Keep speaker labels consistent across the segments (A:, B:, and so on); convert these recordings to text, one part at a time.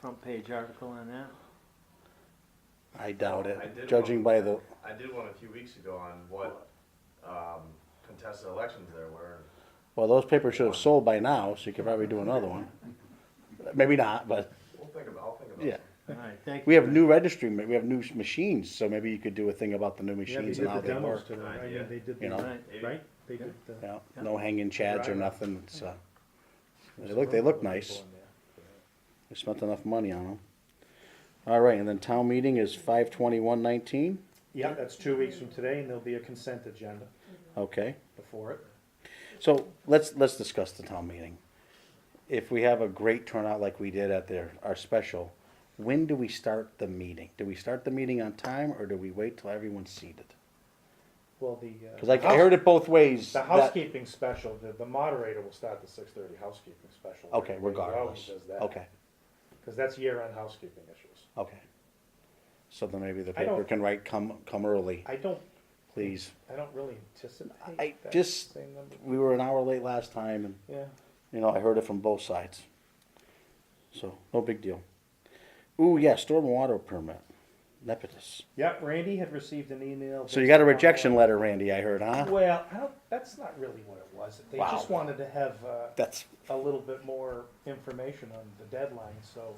A: front page article on that?
B: I doubt
C: I did
B: it, judging by the,
C: I did one a few weeks ago on what um, contested elections there were.
B: well, those papers should have sold by now, so you could probably do another one. Maybe not, but,
C: We'll think about, I'll think about
B: yeah.
C: it.
A: All right, thank you.
B: We have new registry, ma- we have new s- machines, so maybe you could do a thing about the new
D: Yeah, they
B: machines
D: did
B: and how
D: the
B: they
D: demos
B: work.
D: today, right?
C: Yeah.
D: Yeah, they did
B: You know?
D: the,
A: Right.
C: Maybe.
D: right? They did the.
B: Yeah, no hanging chads or
D: Right.
B: nothing, it's, uh, they look, they look nice. We spent enough money on them. All right, and then town meeting is five twenty-one nineteen,
D: Yeah, that's two weeks from today, and there'll be a consent agenda
B: okay.
D: before it.
B: So let's, let's discuss the town meeting. If we have a great turnout like we did at their, our special, when do we start the meeting? Do we start the meeting on time or do we wait till everyone's seated?
D: Well, the. uh,
B: Cause I I heard it both ways.
D: The
B: that-
D: housekeeping special, the, the moderator will start the six thirty housekeeping special.
B: Okay,
D: Everybody always
B: regardless,
D: does that.
B: okay,
D: Cause that's year-end housekeeping issues.
B: okay. So then maybe the
D: I don't-
B: paper can write, come, come early,
D: I don't,
B: please.
D: I don't really anticipate.
B: I
D: that
B: just-
D: same number.
B: We were an hour late last time and
D: Yeah,
B: You know, I heard it from both sides. So, no big deal. Ooh, yeah, storm water permit. Nepotus.
D: yep, Randy had received an email.
B: So you
D: based
B: got a
D: upon
B: rejection
D: what-
B: letter, Randy, I heard, huh?
D: Well, I don't, that's not really what it was. They
B: Wow.
D: just wanted to have, uh,
B: That's,
D: a little bit more information on the deadline, so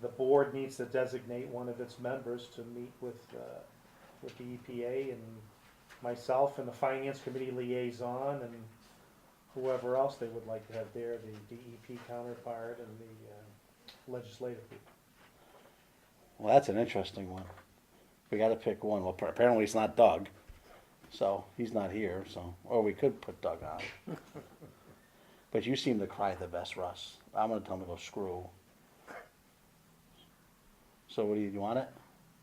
D: the board needs to designate one of its members to meet with, uh, with the EPA and myself and the finance committee liaison and whoever else they would like to have there, the DEP counterpart and the uh, legislative people.
B: well, that's an interesting one. We gotta pick one. Well, appa- apparently it's not Doug. So, he's not here, so, or we could put Doug on. But you seem to cry the best, Russ. I'm gonna tell him to go screw. So what do you, you want it?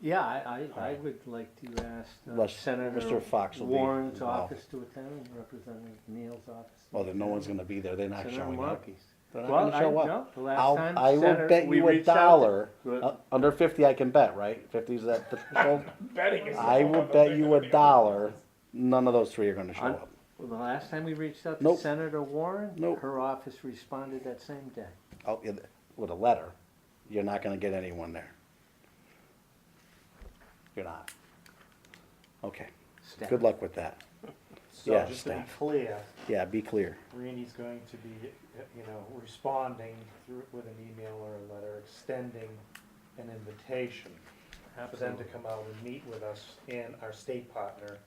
A: Yeah, I, I, I
B: Alright.
A: would like to ask uh,
B: Let's-
A: Senator
B: Mr. Fox will be
A: Warren's
B: involved.
A: office to attend, Representative Neal's office.
B: Well, then no one's gonna be there. They're not
A: Senator
B: showing up.
A: Markey's.
B: They're
A: Well,
B: not gonna show
A: I-
B: up.
A: no, the last
B: I'll,
A: time
B: I will
A: Senator-
B: bet
A: we
B: you a
A: reached out to-
B: dollar.
A: Good.
B: uh, under fifty, I can bet, right? Fifty's that the threshold.
D: Betting is.
B: I will bet you a dollar. None of those three are going to show
A: Un-
B: up.
A: Well, the last time we reached out to
B: Nope.
A: Senator Warren,
B: Nope.
A: her office responded that same day.
B: I'll, it- Oh, with a letter, you're not going to get anyone there. You're not. Okay.
A: Staff.
B: Good luck with that.
D: So
B: Yeah,
D: just to be
B: staff.
D: clear,
B: Yeah, be clear.
D: Randy's going to be, you know, responding through, with an email or a letter extending an invitation for them to come out and meet with us and our state partner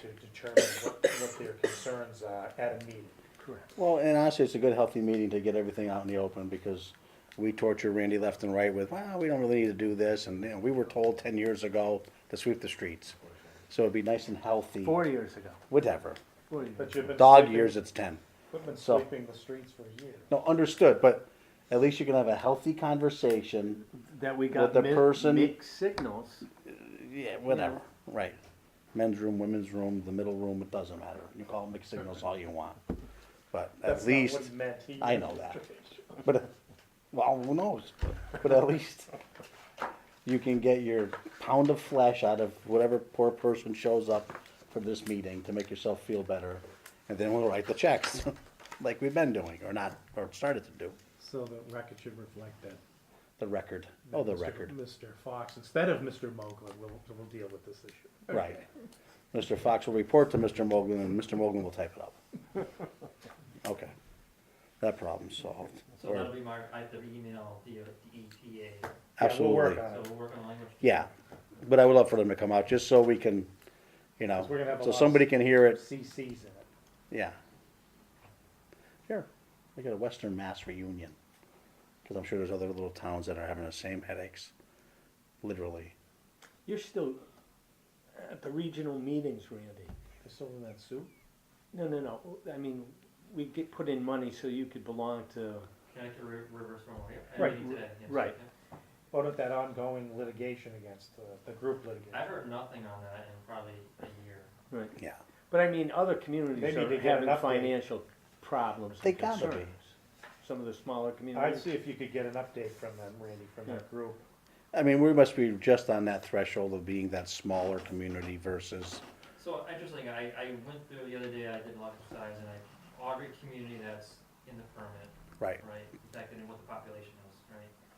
D: to determine what, what their concerns are at a meeting.
A: Correct.
B: Well, and honestly, it's a good, healthy meeting to get everything out in the open because we torture Randy left and right with, well, we don't really need to do this. And you know, we were told 10 years ago to sweep the streets. So it'd be nice and healthy.
A: Four years ago,
B: Whatever.
A: four years.
D: But you've been
B: Dog
D: sweeping-
B: years, it's 10.
D: We've been
B: so-
D: sweeping the streets for years.
B: No, understood, but at least you can have a healthy conversation.
A: That we got
B: the
A: mi-
B: person-
A: mixed signals.
B: Yeah, whatever. Right. Men's room, women's room, the middle room, it doesn't matter. You call it mixed signals all you want. But at
D: That's not what
B: least,
D: he meant. He
B: I
D: meant
B: know that.
D: interpretation.
B: but, well, who knows? But at least you can get your pound of flesh out of whatever poor person shows up for this meeting to make yourself feel better. And then we'll write the checks, like we've been doing, or not, or started to do.
D: So the record should reflect that.
B: The record. Oh, the
D: Mr.
B: record.
D: Mr. Fox, instead of Mr. Mogul, we'll, we'll deal with this issue.
B: Right. Mr. Fox will report to Mr. Mogul, and Mr. Mogul will type it up. Okay. That problem's solved.
E: So
B: Or-
E: that'll be my, I have to email the, uh, the EPA,
D: Yeah, we'll work
B: Absolutely.
D: on it.
E: so we'll work on language.
B: Yeah, but I would love for them to come out, just so we can, you know,
D: 'Cause we're gonna have a
B: so
D: lot of-
B: somebody can hear it,
D: CCs in it.
B: yeah. Sure, we got a Western Mass reunion, because I'm sure there's other little towns that are having the same headaches, literally.
A: You're still at the regional meetings, Randy.
D: They're still in that suit?
A: No, no, no. I mean, we get put in money so you could belong to.
E: Connecticut Ri- River Storm, yeah,
D: Right,
E: I mean today, yes,
A: right.
E: yeah.
D: What about Oh, that ongoing litigation against the, the group litigation?
E: I've heard nothing on that in probably a year.
A: Right.
B: Yeah.
A: But I mean, other communities
D: Maybe they
A: are
D: get
A: having
D: enough money.
A: financial problems
B: They
A: and
B: gotta be.
A: concerns. Some of the smaller
D: I'd
A: communities.
D: see if you could get an update from them, Randy, from that group.
B: I mean, we must be just on that threshold of being that smaller community versus,
E: So interesting, I, I went through the other day, I did a lot of size and I augured community that's in the permit,
B: right,
E: right? In fact, I knew what the population